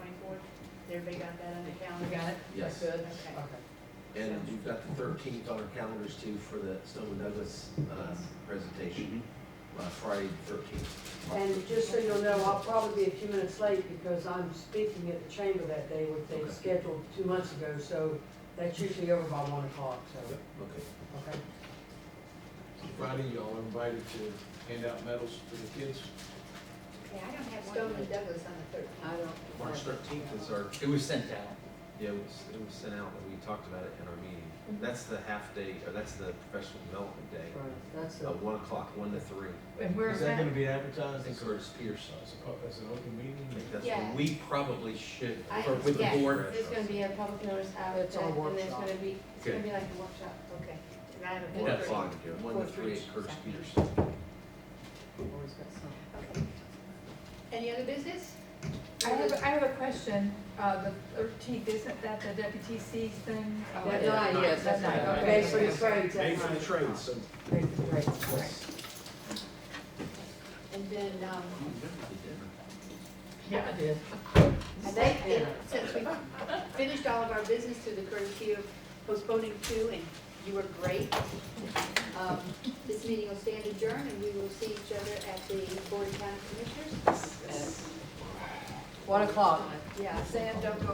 Everybody got that on the calendar? Got it? Yes. Good? Okay. Okay. And you've got the thirteenth on our calendars too for the Stoneman Douglas, uh, presentation, uh, Friday thirteenth. And just so you'll know, I'll probably be a few minutes late because I'm speaking at the chamber that day, which they Okay. scheduled two months ago, so that's usually over by one o'clock, so, Okay. okay? Friday, y'all are invited to hand out medals to the kids. Yeah, I don't have one. Stoneman Douglas on the thirteenth. I don't. March thirteenth is our, It was sent out. yeah, it was, it was sent out, and we talked about it in our meeting. Mm-hmm. That's the half day, or that's the professional development day, Right, that's uh, the, one o'clock, one to three. And where's Is that that? gonna be I advertised think as, Curtis Peterson. as a- as an open meeting? I think that's Yeah. We probably should, I- for- with the yes, board, There's gonna be a public notice out, and It's our there's workshop. gonna be, it's gonna be like a workshop. Okay. And I have one one That's thirty. o'clock, one to three at Curtis Peterson. always got some. Okay. Any other business? I have, I have a question. Uh, the thirteenth, isn't that the WTC's thing? Oh, That night, yes, That that's night, right. okay. Pay for the trades, Pay that's for the right. train, so. Pay for the trades, correct. And then, um, Yeah, I did. I think that since we finished all of our business through the courtesy of postponing two, and you were great, um, this meeting will stand adjourned, and we will see each other at the Board of County Commissioners. One o'clock. Yeah, Sam, don't go